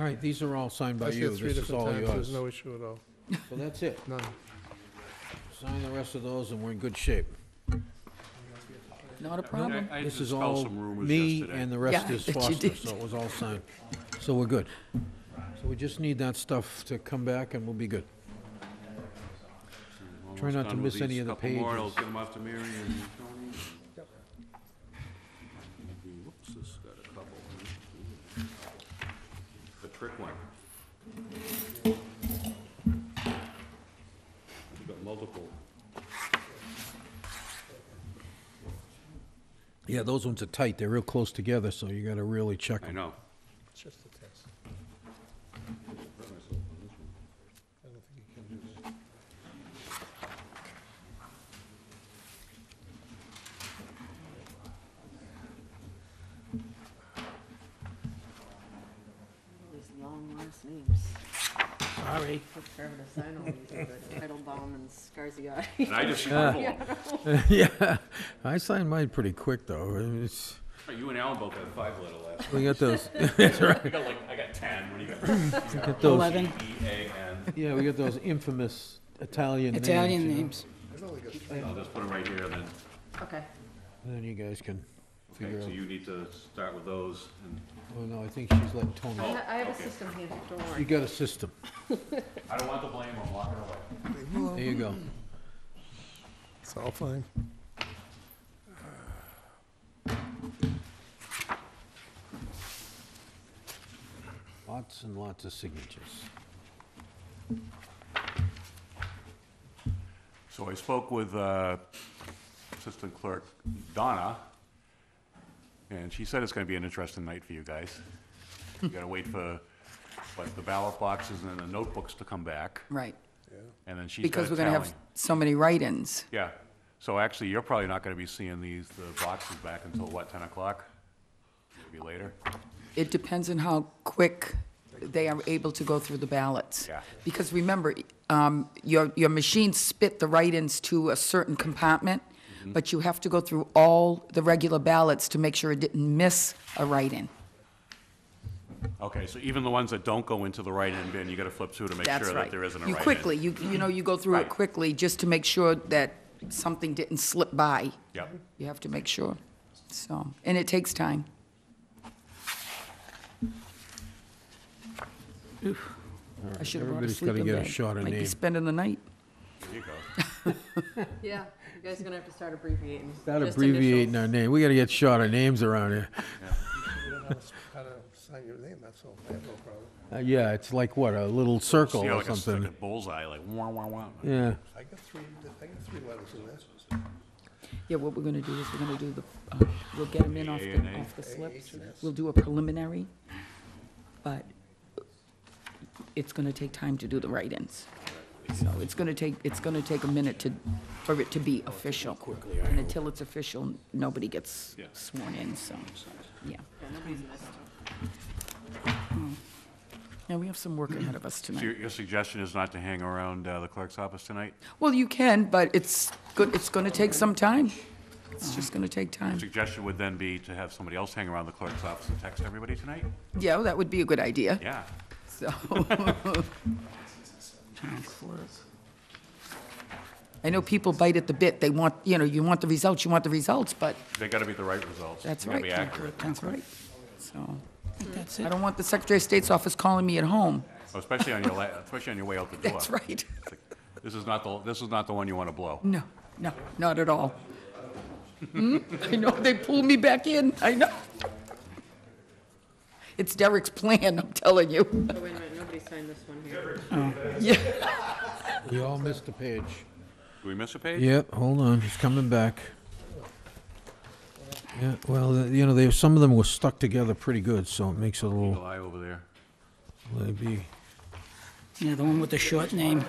All right, these are all signed by I see you. it three This is different all times, yours. there's no issue at all, So that's it. none. Sign the rest of those and we're in good shape. Not a problem. I- I This is dispel all some rumors me yesterday. and the rest Yeah, is that you Foster, did. so it was all signed. So we're good. So we just need that stuff to come back and we'll be good. Try not to Done with miss any these of the couple more, I'll pages. give them out to Mary and Tony. and- Maybe- Whoops, this has got a couple. in it. The trick one. You've got multiple. Yeah, those ones are tight. They're real close together, so you gotta really check I them. know. It's just a test. I don't think you can do this. These long last names. Sorry. Took forever to sign all these, but Titlebaum and Scarziotti. And I just Ah. scribbled. Yeah, I signed mine pretty quick, though. It's- You and Alan both had five letter last. We got those, I got like, I got ten, what do you got? You got those, Eleven E, A, N. yeah, we got those infamous Italian names. Italian you know? names. I'll just put them right here and then, Okay. Then you guys can figure okay, so out. you need to start with those and Oh, no, I think she's letting I Tony. ha- I have a okay. system here, don't You worry. got a system. I don't want the blame, I'm walking away. There you go. It's all fine. Lots and lots of signatures. So I spoke with uh, Assistant Clerk Donna, and she said it's going to be an interesting night for you guys. You got to wait for, like, the ballot boxes and the notebooks to come back, Right, and then she's got because to we're going to tally. have so many write-ins. Yeah, so actually, you're probably not going to be seeing these, the boxes back until, what, 10 o'clock? Maybe later? It depends on how quick they are able to go through the ballots. Yeah. Because remember, um, your, your machine spit the write-ins to a certain compartment, Mm-hmm. but you have to go through all the regular ballots to make sure it didn't miss a write-in. Okay, so even the ones that don't go into the write-in bin, you got to flip through to make That's sure right. that there isn't a You write-in. quickly, you, you know, you go through Right. it quickly just to make sure that something didn't slip by. Yep, You have to make sure, so, and it takes time. I should have brought a Everybody's gotta sleeping get a bag. shot of Might be name. spending the night. there you go. Yeah, you guys are gonna have to start abbreviating. Without just abbreviating our initials. name, we gotta get shorter names around here. You don't know how to sign your name, that's all, I have no problem. Uh, Yeah, it's like, what, a little circle See how or like a- like a something? bullseye, like, wah, wah, wah. Yeah, I got three, I got three letters in this. Yeah, what we're gonna do is we're gonna do the, uh, we'll get them in off A and the, A. off the slips. We'll do a preliminary, but it's gonna take time to do the write-ins. So it's gonna take, it's gonna take a minute to, for it to be official. And until it's official, nobody gets Yeah. sworn in, so, yeah. Hmm. Yeah, nobody's missed. Yeah, we have some work ahead of us So tonight. Your, your suggestion is not to hang around uh, the clerk's office tonight? Well, you can, but it's good, it's gonna take some time. It's just gonna take time. Suggestion would then be to have somebody else hang around the clerk's office and text everybody tonight? Yeah, well, that would be a good idea, Yeah. so. I know people bite at the bit, they want, you know, you want the results, you want the results, but They gotta be the right results. that's They gotta right. be accurate. That's right, so. I don't want the Secretary of State's office calling me at home, Especially on your, la- especially on your way out the door. that's right. This is not the, this is not the one you wanna blow. No, no, not at all. Hmm? I know, they pulled me back in, I know. It's Derek's plan, I'm telling you. Oh, wait a minute, nobody signed this one here. we all missed a page. Do we miss a page? Yep, hold on, he's coming back. Yeah, well, th- you know, they, some of them were stuck together pretty good, so it makes it a little, July over there. maybe, Yeah, the one with the short name.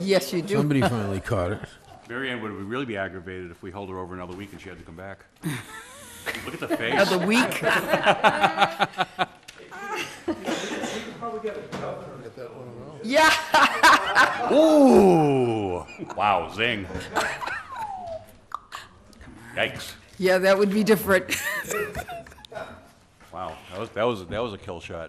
Yes, you do. somebody finally caught it. Mary Ann would really be aggravated if we held her over another week and she had to come back. Look at the face. Another week, yeah. Ooh, wow, zing. Yikes. Yeah, that would be different. Wow, that was, that was, that was a kill shot.